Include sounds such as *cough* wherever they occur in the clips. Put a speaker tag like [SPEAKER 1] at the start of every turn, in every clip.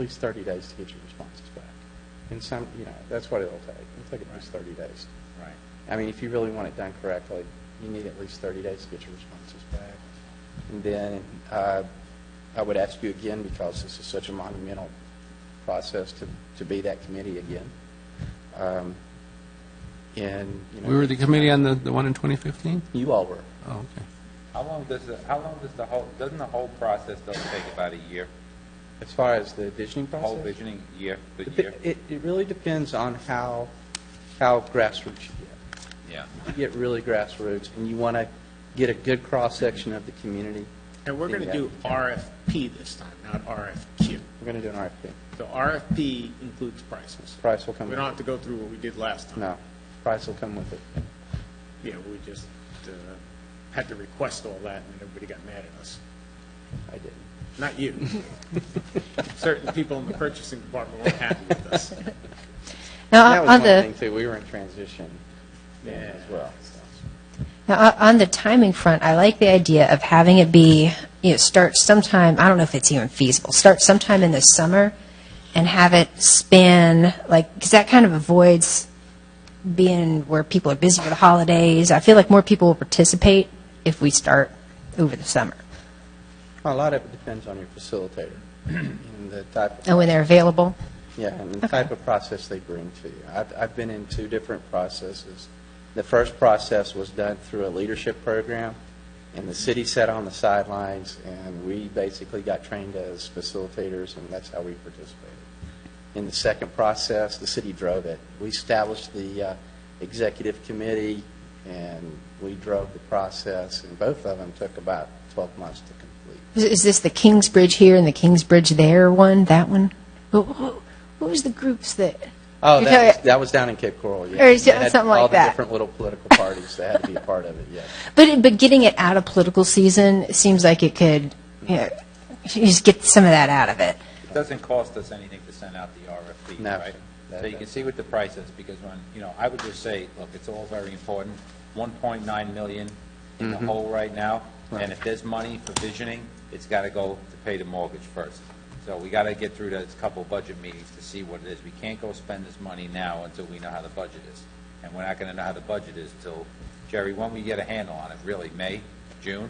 [SPEAKER 1] least 30 days to get your responses back. And some, you know, that's what it'll take. It'll take at least 30 days.
[SPEAKER 2] Right.
[SPEAKER 1] I mean, if you really want it done correctly, you need at least 30 days to get your responses back. And then uh, I would ask you again, because this is such a monumental process to, to be that committee again. Um, And, you know.
[SPEAKER 3] We were the committee on the, the one in 2015?
[SPEAKER 1] You all were.
[SPEAKER 3] Oh, okay.
[SPEAKER 2] How long does the, how long does the whole, doesn't the whole process, does take about a year?
[SPEAKER 1] As far as the visioning process?
[SPEAKER 2] Whole visioning, year, the
[SPEAKER 1] It,
[SPEAKER 2] year?
[SPEAKER 1] it- it really depends on how, how grassroots you get.
[SPEAKER 2] Yeah.
[SPEAKER 1] you get really grassroots and you want to get a good cross-section of the community,
[SPEAKER 4] And we're going to do RFP this time, not RFQ.
[SPEAKER 1] we're going to do an RFP.
[SPEAKER 4] So RFP includes prices.
[SPEAKER 1] Price will come
[SPEAKER 4] We
[SPEAKER 1] with
[SPEAKER 4] don't
[SPEAKER 1] it.
[SPEAKER 4] have to go through what we did last time.
[SPEAKER 1] No, price will come with it.
[SPEAKER 4] Yeah, we just uh, had to request all that, and everybody got mad at us.
[SPEAKER 1] I didn't.
[SPEAKER 4] Not
[SPEAKER 2] *laughs*
[SPEAKER 4] you. *laughs* Certain people in the purchasing department weren't happy with
[SPEAKER 5] *laughs*
[SPEAKER 4] us.
[SPEAKER 1] That
[SPEAKER 5] Now,
[SPEAKER 1] was one
[SPEAKER 5] on
[SPEAKER 1] thing
[SPEAKER 5] the,
[SPEAKER 1] too, we were in transition then as
[SPEAKER 4] Yeah.
[SPEAKER 1] well. so.
[SPEAKER 5] now, uh, on the timing front, I like the idea of having it be, you know, start sometime, I don't know if it's even feasible, start sometime in the summer and have it span, like, because that kind of avoids being where people are busy for the holidays. I feel like more people will participate if we start over the summer
[SPEAKER 1] A lot of it depends on your facilitator *clears throat* and the type of.
[SPEAKER 5] Oh, and when they're available.
[SPEAKER 1] Yeah, and the type of process they bring to you. I've, I've been in two different processes. The first process was done through a leadership program, and the city sat on the sidelines, and we basically got trained as facilitators, and that's how we participated. In the second process, the city drove it. We established the uh, executive committee, and we drove the process, and both of them took about 12 months to complete.
[SPEAKER 5] Is- Is this the Kingsbridge here and the Kingsbridge there one, that one? Who- who- What was the groups that,
[SPEAKER 1] Oh,
[SPEAKER 5] You're
[SPEAKER 1] that was,
[SPEAKER 5] talking-
[SPEAKER 1] that was down in Cape Coral, yeah.
[SPEAKER 5] Or is it
[SPEAKER 1] They had
[SPEAKER 5] something like
[SPEAKER 1] All the
[SPEAKER 5] that?
[SPEAKER 1] different little political parties that had to be a part of it,
[SPEAKER 3] *laughs*
[SPEAKER 1] yeah.
[SPEAKER 5] But but getting it out of political season it seems like it could, you know, you just get some of that out of it.
[SPEAKER 2] It doesn't cost us anything to send out the RFP,
[SPEAKER 1] No,
[SPEAKER 2] right?
[SPEAKER 1] that-
[SPEAKER 2] So you can see what the price is, because when, you know, I would just say, look, it's all very important, 1.9 million in the hole right now, and if there's money for visioning, it's got to go to pay the mortgage first. So we got to get through those couple budget meetings to see what it is. We can't go spend this money now until we know how the budget is, and we're not going to know how the budget is till, Jerry, when we get a handle on it, really, May, June?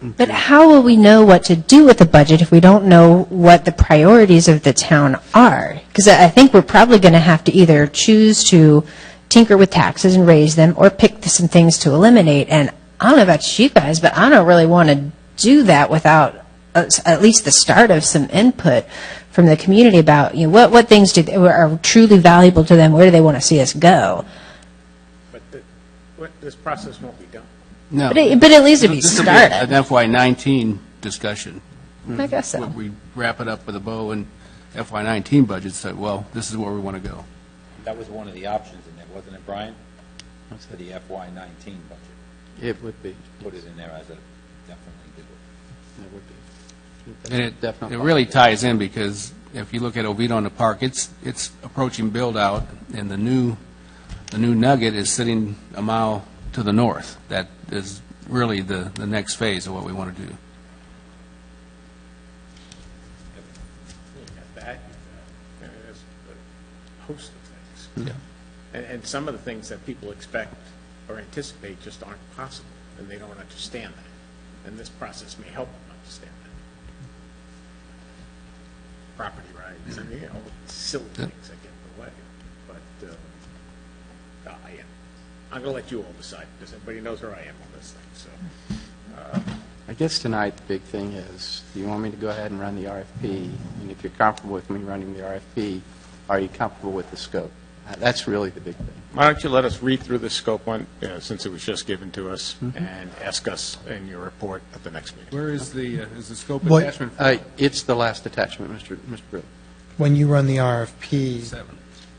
[SPEAKER 5] But how will we know what to do with the budget if we don't know what the priorities of the town are? Because I I think we're probably going to have to either choose to tinker with taxes and raise them, or pick some things to eliminate. And I don't know about you guys, but I don't really want to do that without uh, s- at least the start of some input from the community about you know what what things do they, are truly valuable to them. Where do they want to see us go?
[SPEAKER 4] But the- what- this process won't be done.
[SPEAKER 3] No.
[SPEAKER 5] But it- but at least it'd be
[SPEAKER 3] This will be a-
[SPEAKER 5] started.
[SPEAKER 3] An FY '19 discussion.
[SPEAKER 5] I guess so.
[SPEAKER 3] Would We wrap it up with a bow and FY '19 budget, say, well, this is where we want to go.
[SPEAKER 2] That was one of the options in there, wasn't it, Brian? For the FY19 budget.
[SPEAKER 1] It would be,
[SPEAKER 2] put it in there as a, definitely do it.
[SPEAKER 1] it would be.
[SPEAKER 3] And it,
[SPEAKER 1] Definitely.
[SPEAKER 3] it really ties in, because if you look at Oviedo and the park, it's, it's approaching build-out, and the new, the new nugget is sitting a mile to the north. That is really the, the next phase of what we want to do.
[SPEAKER 4] You got that, you got, uh, there's a host of things. And, and some of the things that people expect or anticipate just aren't possible, and they don't understand that. And this process may help them understand that. Property rights and, you know, silly things that get in the way. But, uh, I am, I'm gonna let you all decide, because everybody knows where I am on this thing, so.
[SPEAKER 1] I guess tonight, the big thing is, do you want me to go ahead and run the RFP? And if you're comfortable with me running the RFP, are you comfortable with the scope? Uh, That's really the big thing.
[SPEAKER 4] Why don't you let us read through the scope one, uh, since it was just given to us,
[SPEAKER 1] Mm-hmm.
[SPEAKER 4] and ask us in your report at the next meeting.
[SPEAKER 3] Where is the, is the scope
[SPEAKER 6] What-
[SPEAKER 3] attachment?
[SPEAKER 1] Uh, It's the last attachment, Mr. Mr. Brill.
[SPEAKER 6] When you run the RFP,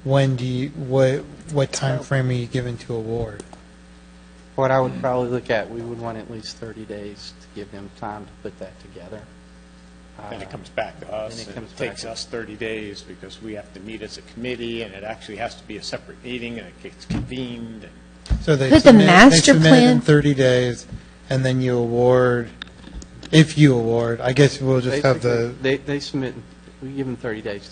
[SPEAKER 6] when do you, what, what timeframe are you given to award?
[SPEAKER 1] What I would probably look at, we would want at least 30 days to give them time to put that together. Uh,
[SPEAKER 4] Then it comes back to us,
[SPEAKER 1] Then it
[SPEAKER 4] and
[SPEAKER 1] comes
[SPEAKER 4] it takes
[SPEAKER 1] back.
[SPEAKER 4] us 30 days, because we have to meet as a committee, and it actually has to be a separate meeting, and it gets convened, and
[SPEAKER 6] So they
[SPEAKER 5] Could the
[SPEAKER 6] submit, they
[SPEAKER 5] master
[SPEAKER 6] submit it in
[SPEAKER 5] plan-
[SPEAKER 6] 30 days, and then you award, if you award, I guess we'll just have the,
[SPEAKER 1] Basically, They, they submit We give them 30 days